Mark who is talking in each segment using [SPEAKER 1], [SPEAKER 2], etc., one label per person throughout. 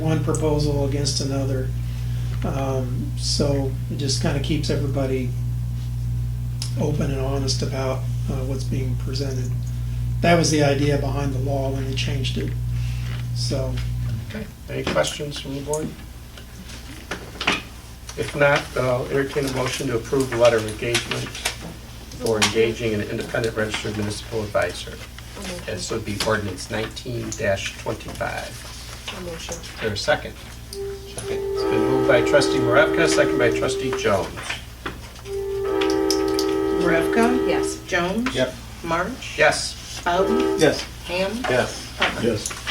[SPEAKER 1] one proposal against another. Um, So it just kind of keeps everybody open and honest about uh, what's being presented. That was the idea behind the law when they changed it. So,
[SPEAKER 2] Okay, any questions from the board? If not, uh, entertain a motion to approve the letter of engagement for engaging an independent registered municipal advisor. This would be ordinance nineteen twenty-five.
[SPEAKER 3] A motion.
[SPEAKER 2] Is there a second? Second. It's been moved by trustee Maravka, second by trustee Jones.
[SPEAKER 4] Marevka?
[SPEAKER 3] Yes.
[SPEAKER 4] Jones?
[SPEAKER 5] Yep.
[SPEAKER 4] March?
[SPEAKER 2] Yes.
[SPEAKER 4] Bowden?
[SPEAKER 5] Yes.
[SPEAKER 4] Ham?
[SPEAKER 5] Yes.
[SPEAKER 4] Hubbard?
[SPEAKER 5] Yes.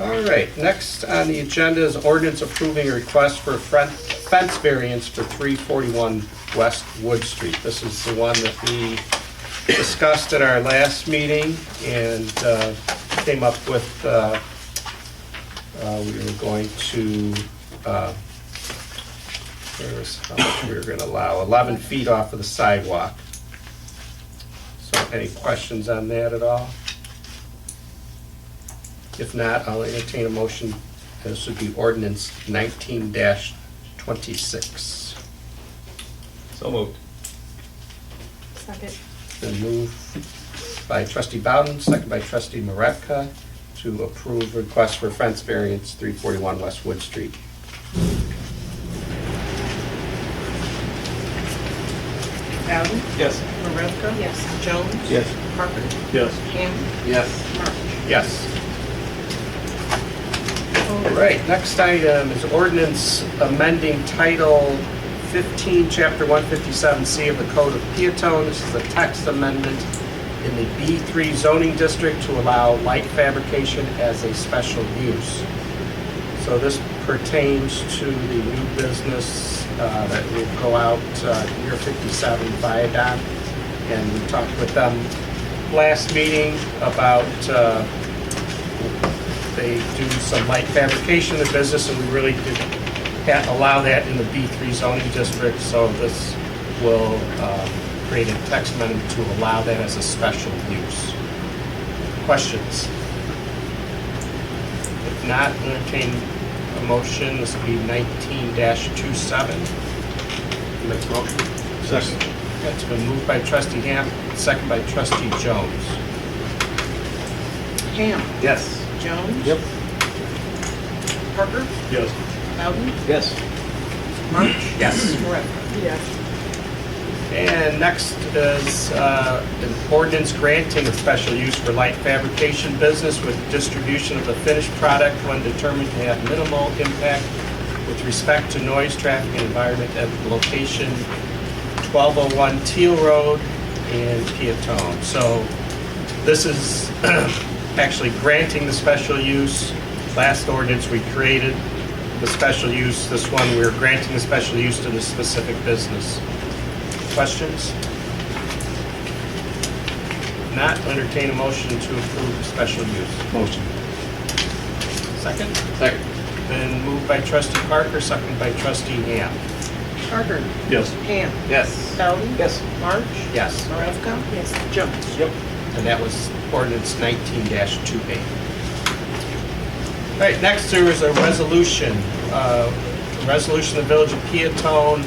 [SPEAKER 2] All right, next on the agenda is ordinance approving a request for fren- fence variance for 341 West Wood Street. This is the one that we discussed at our last meeting and uh, came up with, uh, uh, we were going to, uh, where is how much we were going to allow, 11 feet off of the sidewalk. So any questions on that at all? If not, I'll entertain a motion. This would be ordinance nineteen twenty-six.
[SPEAKER 5] So moved.
[SPEAKER 3] Second.
[SPEAKER 2] Been moved by trustee Bowden, second by trustee Maravka, to approve request for fence variance, three forty-one West Wood Street.
[SPEAKER 4] Bowden?
[SPEAKER 5] Yes.
[SPEAKER 4] Marevka?
[SPEAKER 3] Yes.
[SPEAKER 4] Jones?
[SPEAKER 5] Yes.
[SPEAKER 4] Hubbard?
[SPEAKER 5] Yes.
[SPEAKER 4] Ham?
[SPEAKER 5] Yes.
[SPEAKER 4] March?
[SPEAKER 2] Yes. All right, next item is ordinance amending Title 15, Chapter 157C of the Code of Peatone. This is a text amendment in the B3 zoning district to allow light fabrication as a special use. So this pertains to the new business uh, that will go out uh, near 57 Viaduct. And we talked with them last meeting about uh, they do some light fabrication in the business, and we really didn't ha- allow that in the B3 zoning district, so this will um, create a text amendment to allow that as a special use. Questions? If not, entertain a motion, this will be 19-27. Make a motion.
[SPEAKER 5] Second.
[SPEAKER 2] That's been moved by trustee Ham, second by trustee Jones.
[SPEAKER 4] Ham?
[SPEAKER 5] Yes.
[SPEAKER 4] Jones?
[SPEAKER 5] Yep.
[SPEAKER 4] Hubbard?
[SPEAKER 5] Yes.
[SPEAKER 4] Bowden?
[SPEAKER 5] Yes.
[SPEAKER 4] March?
[SPEAKER 2] Yes.
[SPEAKER 4] Marevka?
[SPEAKER 3] Yes.
[SPEAKER 2] And next is uh, an ordinance granting a special use for light fabrication business with distribution of the finished product when determined to have minimal impact with respect to noise, traffic, and environment at location 1201 Teal Road in Peatone. So this is actually granting the special use. Last ordinance, we created the special use. This one, we're granting the special use to the specific business. Questions? Not entertain a motion to approve the special use.
[SPEAKER 5] Motion.
[SPEAKER 2] Second?
[SPEAKER 5] Second.
[SPEAKER 2] Then moved by trustee Parker, second by trustee Ham.
[SPEAKER 4] Hubbard?
[SPEAKER 5] Yes.
[SPEAKER 4] Ham?
[SPEAKER 5] Yes.
[SPEAKER 4] Bowden?
[SPEAKER 5] Yes.
[SPEAKER 4] March?
[SPEAKER 2] Yes.
[SPEAKER 4] Marevka?
[SPEAKER 3] Yes.
[SPEAKER 4] Jones?
[SPEAKER 5] Yep.
[SPEAKER 2] And that was ordinance 19-28. All right, next there is a resolution. uh, a Resolution of the Village of Peatone,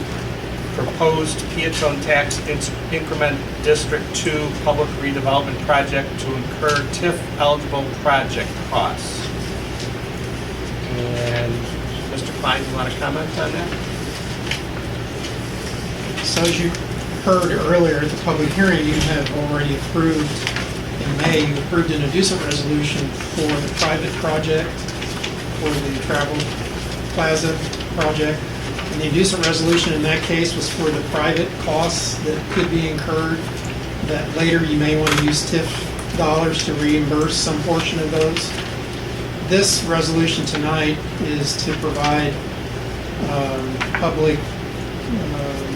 [SPEAKER 2] proposed Peatone Tax In- Increment District 2 Public Redevelopment Project to incur TIF-eligible project costs. And Mr. Klein, you want to comment on that?
[SPEAKER 1] so as you heard earlier at the public hearing, you have already approved, in May, you approved an inducement resolution for the private project, for the travel plaza project. And the inducement resolution in that case was for the private costs that could be incurred, that later you may want to use TIF dollars to reimburse some portion of those. This resolution tonight is to provide um, public um,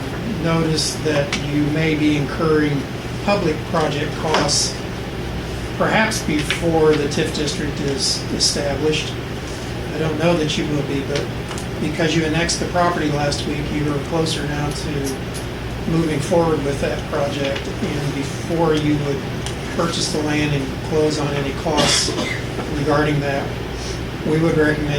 [SPEAKER 1] notice that you may be incurring public project costs perhaps before the TIF district is established. I don't know that you will be, but because you annexed the property last week, you are closer now to moving forward with that project. And before you would purchase the land and close on any costs regarding that, we would recommend